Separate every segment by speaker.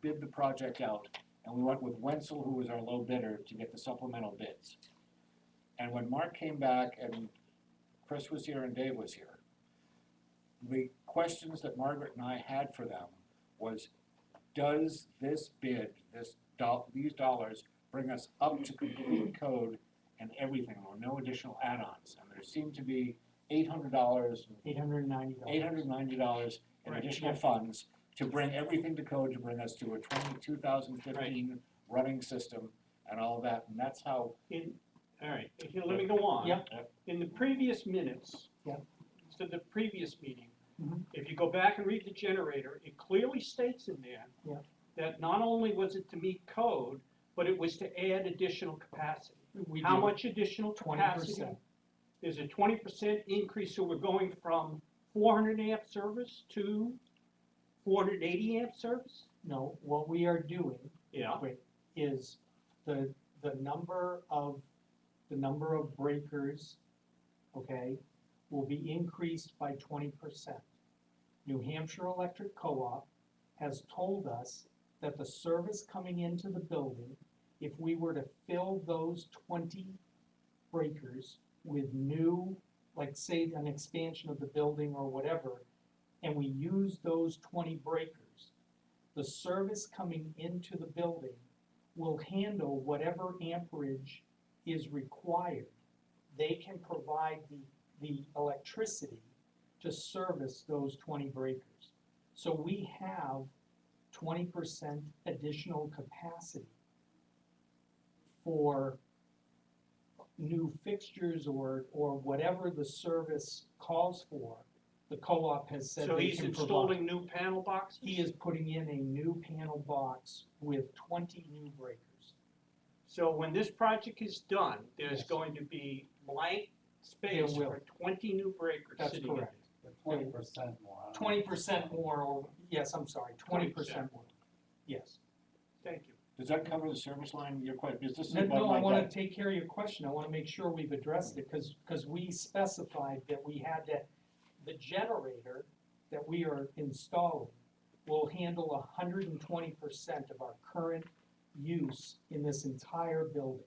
Speaker 1: bid the project out, and we went with Wenzel, who was our low bidder, to get the supplemental bids. And when Mark came back and Chris was here and Dave was here, the questions that Margaret and I had for them was, does this bid, this doll, these dollars bring us up to complete code and everything, or no additional add-ons? And there seemed to be eight hundred dollars
Speaker 2: Eight hundred and ninety dollars.
Speaker 1: eight hundred and ninety dollars in
Speaker 2: Right,
Speaker 1: additional
Speaker 2: yeah.
Speaker 1: funds to bring everything to code, to bring us to a twenty, two thousand fifteen running system and all that, and that's how,
Speaker 3: In, all right, if you let me go on.
Speaker 2: Yep.
Speaker 1: Yep.
Speaker 3: In the previous minutes.
Speaker 2: Yep.
Speaker 3: To the previous meeting,
Speaker 2: Mhm.
Speaker 3: if you go back and read the generator, it clearly states in there.
Speaker 2: Yep.
Speaker 3: That not only was it to meet code, but it was to add additional capacity.
Speaker 2: We
Speaker 3: How
Speaker 2: do
Speaker 3: much additional capacity?
Speaker 2: 20%.
Speaker 3: There's a twenty percent increase, so we're going from four hundred amp service to four hundred eighty amp service?
Speaker 2: No, what we are doing
Speaker 3: Yeah.
Speaker 2: is the, the number of, the number of breakers, okay, will be increased by twenty percent. New Hampshire Electric Co-op has told us that the service coming into the building, if we were to fill those twenty breakers with new, like say an expansion of the building or whatever, and we use those twenty breakers, the service coming into the building will handle whatever amperage is required. They can provide the, the electricity to service those twenty breakers. So we have twenty percent additional capacity for new fixtures or, or whatever the service calls for, the co-op has said
Speaker 3: So
Speaker 2: they
Speaker 3: he's
Speaker 2: can provide.
Speaker 3: installing new panel boxes?
Speaker 2: He is putting in a new panel box with twenty new breakers.
Speaker 3: So when this project is done, there's
Speaker 2: Yes.
Speaker 3: going to be blank
Speaker 2: There
Speaker 3: space
Speaker 2: will.
Speaker 3: for twenty new breakers
Speaker 2: That's
Speaker 3: sitting in
Speaker 2: correct.
Speaker 4: Twenty percent more. I don't know.
Speaker 2: Twenty percent more, or, yes, I'm sorry, twenty percent more, yes.
Speaker 3: it. Thank you.
Speaker 1: does that cover the service line, your question, is this
Speaker 2: No,
Speaker 1: about
Speaker 2: no, I
Speaker 1: like
Speaker 2: wanna
Speaker 1: that-
Speaker 2: take care of your question, I wanna make sure we've addressed it, cause, 'cause we specified that we had that, the generator that we are installing will handle hundred and twenty percent of our current use in this entire building,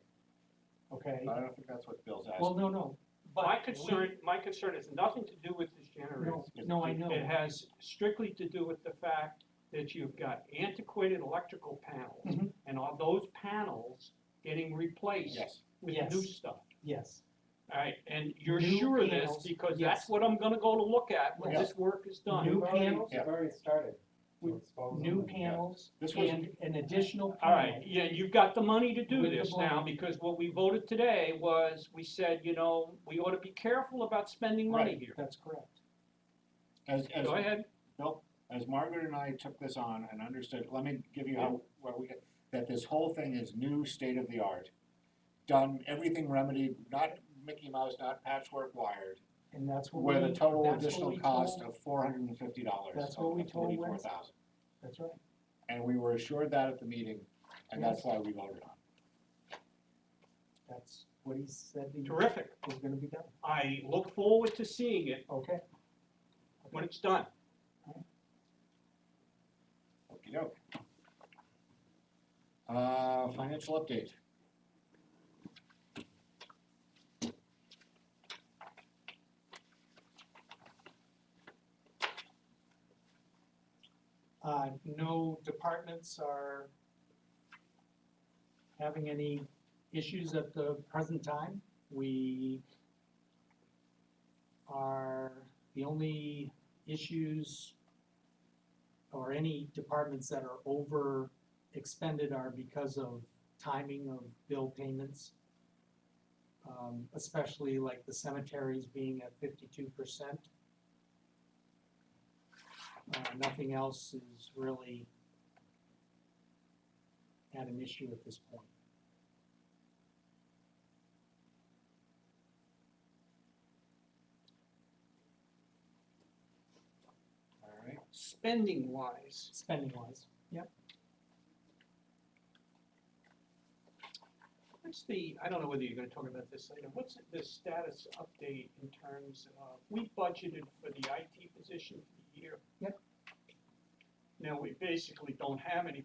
Speaker 2: okay?
Speaker 1: I don't think that's what Bill's
Speaker 2: Well,
Speaker 1: asking.
Speaker 2: no, no, but.
Speaker 3: My
Speaker 2: we-
Speaker 3: concern, my concern has nothing to do with this generator.
Speaker 2: No, no, I know.
Speaker 3: It has strictly to do with the fact that you've got antiquated electrical panels.
Speaker 2: Mhm.
Speaker 3: And are those panels getting replaced
Speaker 1: Yes,
Speaker 3: with
Speaker 2: Yes.
Speaker 3: new stuff?
Speaker 2: Yes,
Speaker 3: Alright, and you're
Speaker 2: New
Speaker 3: sure of this
Speaker 2: panels,
Speaker 3: because
Speaker 2: yes.
Speaker 3: that's what I'm gonna go to look at when
Speaker 2: Yeah.
Speaker 3: this work is done.
Speaker 2: New
Speaker 4: We've already-
Speaker 2: panels?
Speaker 4: We've already started. to expose
Speaker 2: new
Speaker 4: them.
Speaker 2: panels
Speaker 1: This was-
Speaker 2: and an additional
Speaker 3: All right,
Speaker 2: panel.
Speaker 3: yeah, you've got the money to do
Speaker 2: With the
Speaker 3: this now,
Speaker 2: bond.
Speaker 3: because what we voted today was, we said, you know, we ought to be careful about spending money
Speaker 1: Right.
Speaker 3: here.
Speaker 2: That's correct.
Speaker 1: as, as,
Speaker 3: Go ahead,
Speaker 1: Bill, as Margaret and I took this on and understood, let me give you how, where we, that this whole thing is new, state of the art. Done, everything remedied, not Mickey Mouse, not patchwork wired,
Speaker 2: And that's what we.
Speaker 1: With a total
Speaker 2: that's what
Speaker 1: additional
Speaker 2: we
Speaker 1: cost
Speaker 2: told-
Speaker 1: of four hundred and fifty dollars,
Speaker 2: That's
Speaker 1: so
Speaker 2: what we
Speaker 1: of
Speaker 2: told
Speaker 1: forty-four
Speaker 2: Wednesday.
Speaker 1: thousand.
Speaker 2: That's right.
Speaker 1: And we were assured that at the meeting, and that's why we voted on.
Speaker 2: That's what he said he was
Speaker 3: terrific.
Speaker 2: gonna be done.
Speaker 3: I look forward to seeing it
Speaker 2: Okay,
Speaker 3: when it's done.
Speaker 1: it. Okey-doke. Uh, financial update.
Speaker 2: uh, no departments are having any issues at the present time. We are, the only issues or any departments that are over expended are because of timing of bill payments. Um, especially like the cemeteries being at fifty-two percent. Uh, nothing else is really at an issue at this point.
Speaker 1: All right.
Speaker 3: Spending wise,
Speaker 2: Spending wise,
Speaker 3: what's the, I don't know whether you're gonna talk about this later, what's the status update in terms of, we budgeted for the IT position for the year.
Speaker 2: Yep.
Speaker 3: Now, we basically don't have any